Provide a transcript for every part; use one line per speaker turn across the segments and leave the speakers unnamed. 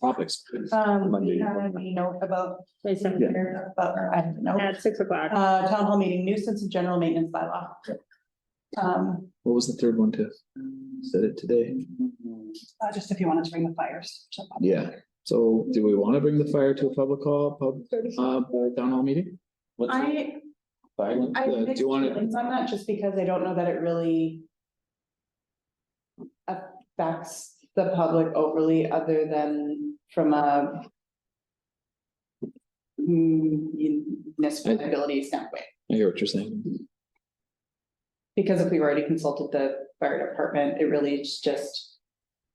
topics.
Um,
Monday.
we have a note about,
May seventh,
about, I don't know,
at six o'clock.
uh, town hall meeting nuisance and general maintenance bylaw. Um,
What was the third one, Tiff? Said it today.
uh, just if you wanted to bring the fires. so-
Yeah, so do we want to bring the fire to a public hall, pub,
Oh.
uh, town hall meeting? What's the
I,
fire one?
I.
Uh, Do you want to,
It's on that just because I don't know that it really. Affects the public overly other than from a. mm, municipality standpoint,
I hear what you're saying.
because if we've already consulted the fire department, it really is just.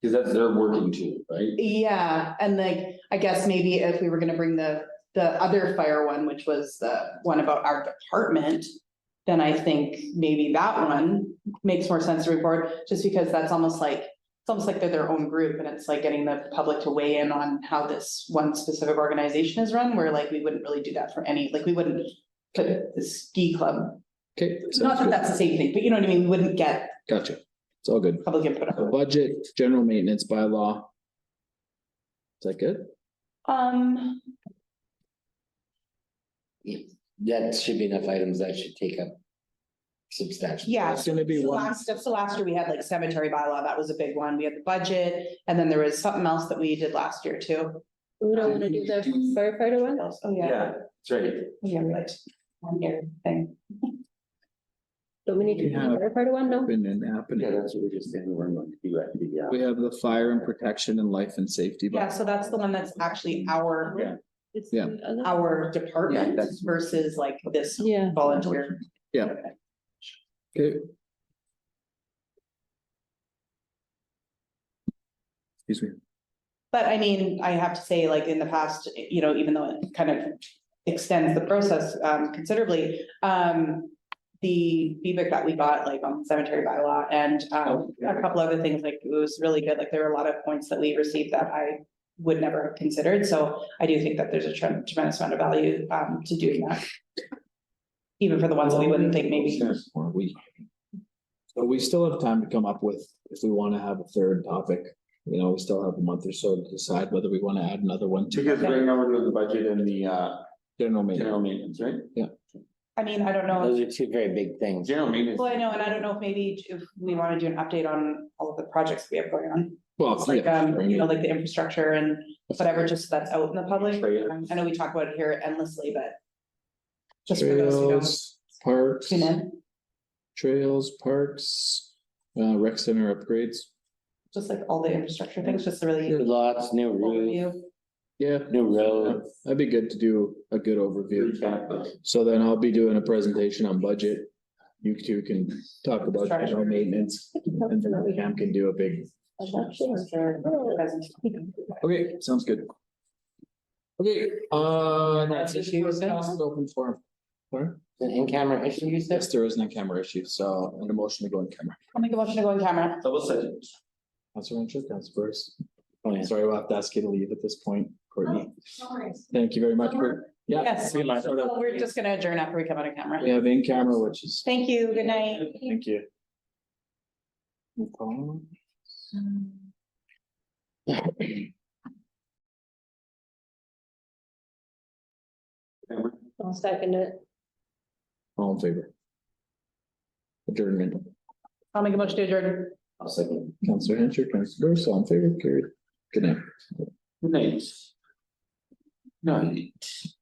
Cause that's their working tool, right?
Yeah, and like, I guess maybe if we were gonna bring the, the other fire one, which was the one about our department. Then I think maybe that one makes more sense to report, just because that's almost like, it's almost like they're their own group and it's like getting the public to weigh in on how this one specific organization is run, where like we wouldn't really do that for any, like we wouldn't. Put the ski club,
Okay.
not
sounds
that
good.
that's the same thing, but you know what I mean, we wouldn't get
Gotcha. It's all good.
public input. on it.
Budget, general maintenance by law. Is that good?
Um,
That should be enough items that should take up substantial.
yeah,
It's gonna be
So
one.
Last, so last year, we had like cemetery bylaw, that was a big one, we had the budget, and then there was something else that we did last year too.
We don't wanna do the firefighter one?
Oh, yeah,
Yeah, that's right.
yeah, we like one year thing,
Don't we need to do the
Yeah.
firefighter one? No?
Been and happening.
Yeah, that's what we just did. We're going to do uh, that. Yeah.
We have the fire and protection and life and safety.
yeah, so that's the one that's actually our,
Yeah.
It's
Yeah.
the other-
our
Yeah,
department
that's-
versus like this
Yeah.
volunteer.
Okay. Excuse me.
But I mean, I have to say, like, in the past, you know, even though it kind of extends the process um considerably, um. The feedback that we got, like, on cemetery bylaw and um a couple other things, like, it was really good, like, there were a lot of points that we received that I. Would never have considered, so I do think that there's a trem- tremendous amount of value um to doing that. Even for the ones that we wouldn't think maybe,
Or we. So we still have time to come up with, if we wanna have a third topic, you know, we still have a month or so to decide whether we wanna add another one to
Because right now we're doing the budget and the uh
general maintenance.
general maintenance, right?
I mean, I don't know. if-
Those are two very big things.
General maintenance.
Well, I know, and I don't know if maybe if we wanna do an update on all of the projects we have going on.
Well,
It's like,
yeah,
um, you know,
right.
like the infrastructure and whatever, just so that's out in the public.
Trail.
Um, I know we talk about it here endlessly, but. Just for those who don't
Trails, Parks,
tune in,
trails, parks, uh, rec center upgrades.
just like all the infrastructure things, just to really
New lots, new roof,
overview.
Yeah,
new road.
that'd be good to do a good overview.
Recap of-
So then I'll be doing a presentation on budget. You two can talk about
Sorry.
general maintenance and then Cam can do a big Okay, sounds good. Okay, uh, that's it
Issue
for
with that?
council open forum. Sorry?
An in-camera issue, you said?
Yes, there is no camera issue, so I'm gonna motion to go in camera.
I'll make a motion to go on camera.
Double second.
Councilor Renfro, Councilor Burris.
Oh, yeah.
Sorry, we'll have to ask you to leave at this point, Courtney. Thank you very much for, yeah.
Oh. Yes.
we might sort of-
Well, We're just gonna adjourn after we come out of
We
camera.
have in camera, which is.
Thank you, good night.
Thank you. Um,
I'll second it.
All in favor? Adjournment.
I'll make a motion to adjourn.
I'll second. Councilor Renfro, Councilor Burris, all in favor, carried. Good night.
Nice. Night.